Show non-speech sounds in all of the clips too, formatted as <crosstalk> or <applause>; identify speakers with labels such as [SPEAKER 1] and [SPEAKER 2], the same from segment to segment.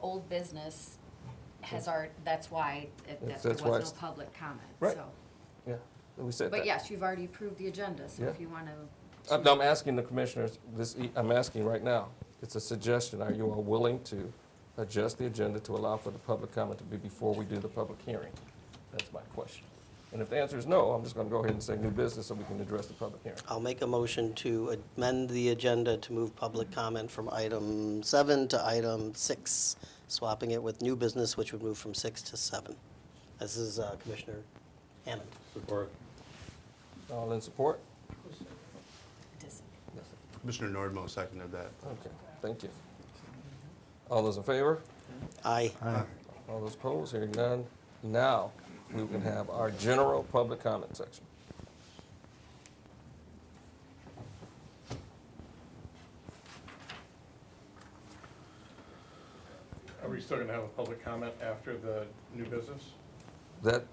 [SPEAKER 1] old business has our, that's why, it- that
[SPEAKER 2] That's-
[SPEAKER 1] there
[SPEAKER 2] that's why
[SPEAKER 1] was no
[SPEAKER 2] it's-
[SPEAKER 1] public comment,
[SPEAKER 2] Right.
[SPEAKER 1] so.
[SPEAKER 2] Yeah, we said that.
[SPEAKER 1] But yes, you've already approved the agenda, so if
[SPEAKER 2] Yeah. Uh,
[SPEAKER 1] you want to
[SPEAKER 2] I'm I'm asking the commissioners, this, e- I'm asking right now, it's a suggestion, are you all willing to adjust the agenda to allow for the public comment to be before we do the public hearing? That's my question. And if the answer is no, I'm just gonna go ahead and say new business so we can address the public hearing.
[SPEAKER 3] I'll make a motion to amend the agenda to move public comment from item seven to item six, swapping it with new business, which would move from six to seven. This is uh, Commissioner Hammond.
[SPEAKER 4] Support.
[SPEAKER 2] All in support?
[SPEAKER 1] dis-
[SPEAKER 4] Commissioner Nordmo seconded that.
[SPEAKER 2] Okay, thank you. All those in favor?
[SPEAKER 3] Aye.
[SPEAKER 2] All those opposed? Hearing none. Now, we can have our general public comment section.
[SPEAKER 5] Are we still going to have a public comment after the new business?
[SPEAKER 2] That,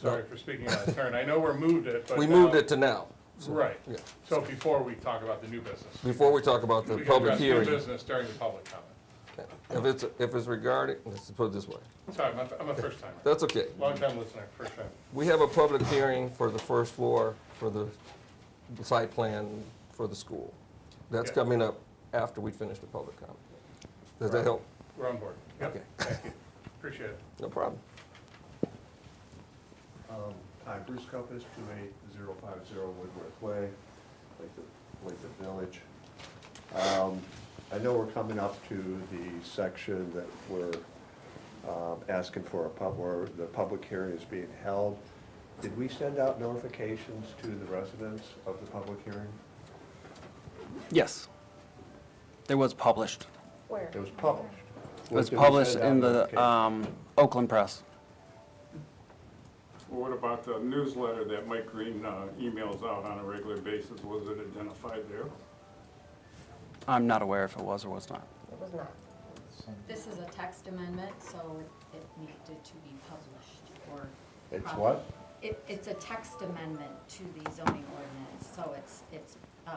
[SPEAKER 5] Sorry for speaking out of turn. I know we're moved it, but.
[SPEAKER 2] we
[SPEAKER 5] now-
[SPEAKER 2] moved it to now. so,
[SPEAKER 5] Right.
[SPEAKER 2] Yeah.
[SPEAKER 5] So before we talk about the new business.
[SPEAKER 2] Before we talk about the
[SPEAKER 5] We can
[SPEAKER 2] public
[SPEAKER 5] address new
[SPEAKER 2] hearing.
[SPEAKER 5] business during the public comment.
[SPEAKER 2] If it's, if it's regarding, let's put it this way,
[SPEAKER 5] Sorry, I'm a- I'm a first timer.
[SPEAKER 2] that's okay.
[SPEAKER 5] Long time listener, first time.
[SPEAKER 2] We have a public hearing for the first floor for the site plan for the school. That's
[SPEAKER 5] Yeah.
[SPEAKER 2] coming up after we finish the public comment. Does that
[SPEAKER 5] Right.
[SPEAKER 2] help?
[SPEAKER 5] We're on board.
[SPEAKER 2] Okay.
[SPEAKER 5] Yep, thank you. Appreciate it.
[SPEAKER 2] No problem.
[SPEAKER 6] Um, Hi, Bruce Copus, 28050 Woodworth Way, Lathrop Lathrop Village. Um, I know we're coming up to the section that we're um, asking for a pub, where the public hearing is being held. Did we send out notifications to the residents of the public hearing?
[SPEAKER 7] Yes. It was published.
[SPEAKER 8] Where?
[SPEAKER 6] It was published.
[SPEAKER 7] It was
[SPEAKER 6] Did we send
[SPEAKER 7] published
[SPEAKER 6] out
[SPEAKER 7] in the
[SPEAKER 6] notifications?
[SPEAKER 7] um, Oakland Press.
[SPEAKER 9] Well, What about the newsletter that Mike Green uh, emails out on a regular basis? Was it identified there?
[SPEAKER 7] I'm not aware if it was or was not.
[SPEAKER 8] It was not.
[SPEAKER 1] This is a text amendment, so it needed to be published or.
[SPEAKER 6] It's
[SPEAKER 1] prob-
[SPEAKER 6] what?
[SPEAKER 1] It, it's a text amendment to the zoning ordinance, so it's, it's, uh,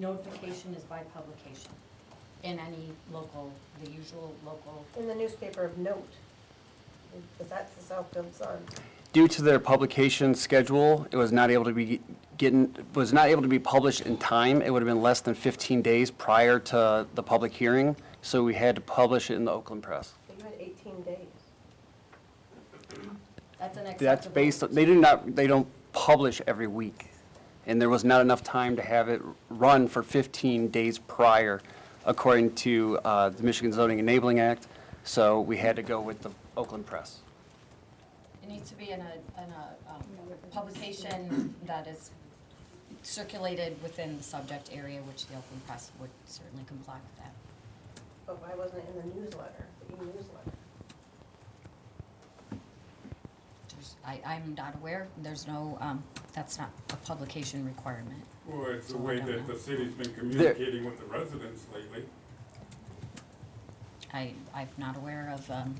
[SPEAKER 1] notification is by publication in any local, the usual local
[SPEAKER 8] In the newspaper of note, because that's the Southfield Sun.
[SPEAKER 7] Due to their publication schedule, it was not able to be getting, was not able to be published in time. It would have been less than 15 days prior to the public hearing, so we had to publish it in the Oakland Press.
[SPEAKER 8] But you had 18 days.
[SPEAKER 1] That's an acceptable.
[SPEAKER 7] That's based, they do not, they don't publish every week. And there was not enough time to have it run for 15 days prior, according to uh, the Michigan Zoning Enabling Act. So we had to go with the Oakland Press.
[SPEAKER 1] It needs to be in a, in a um, publication that is circulated within the subject area, which the Oakland Press would certainly comply with that.
[SPEAKER 8] But why wasn't it in the newsletter, the e-newsletter?
[SPEAKER 1] There's- I, I'm not aware, there's no, um, that's not a publication requirement.
[SPEAKER 9] Well, it's the
[SPEAKER 1] Oh, I
[SPEAKER 9] way
[SPEAKER 1] don't
[SPEAKER 9] that
[SPEAKER 1] know.
[SPEAKER 9] the city's been communicating with the residents lately.
[SPEAKER 1] I, I'm not aware of um,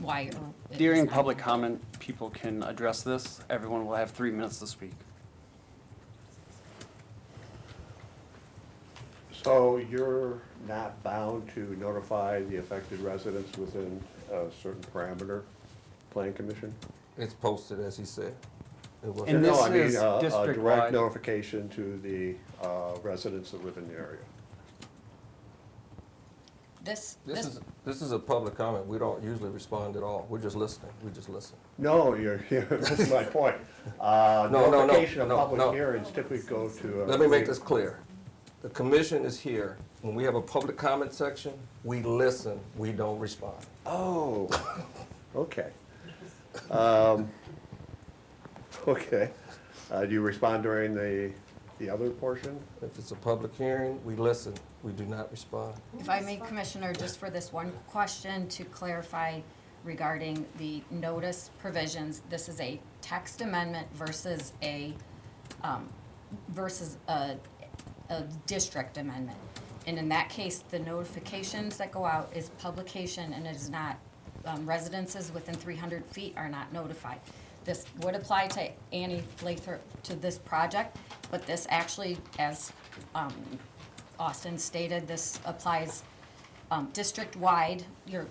[SPEAKER 1] why or. it was
[SPEAKER 7] During
[SPEAKER 1] not-
[SPEAKER 7] public comment, people can address this. Everyone will have three minutes to speak.
[SPEAKER 6] So you're not bound to notify the affected residents within a certain parameter, Plan Commission?
[SPEAKER 2] It's posted, as he said. It was-
[SPEAKER 7] And
[SPEAKER 6] No,
[SPEAKER 7] this
[SPEAKER 6] I mean,
[SPEAKER 7] is
[SPEAKER 6] a- A direct
[SPEAKER 7] district-wide.
[SPEAKER 6] notification to the uh, residents that live in the area.
[SPEAKER 1] This,
[SPEAKER 2] This
[SPEAKER 1] this,
[SPEAKER 2] is, this is a public comment. We don't usually respond at all. We're just listening. We just listen.
[SPEAKER 6] No, you're, <laughs> you're- that's my point. Uh,
[SPEAKER 2] <laughs> No, no, no,
[SPEAKER 6] Notification of
[SPEAKER 2] no, no.
[SPEAKER 6] public hearings typically go to. a-
[SPEAKER 2] Let me make this clear. The commission is here. When we have a public comment section, we listen, we don't respond.
[SPEAKER 6] Oh, okay. Um, Okay. Uh, Do you respond during the, the other portion?
[SPEAKER 2] If it's a public hearing, we listen, we do not respond.
[SPEAKER 1] if I may, Commissioner, just for this one question to clarify regarding the notice provisions, this is a text amendment versus a, um, versus a, a district amendment. And in that case, the notifications that go out is publication and it is not, um, residences within three hundred feet are not notified. This would apply to Annie Lathrop, to this project, but this actually, as, um, Austin stated, this applies, um, district-wide. Your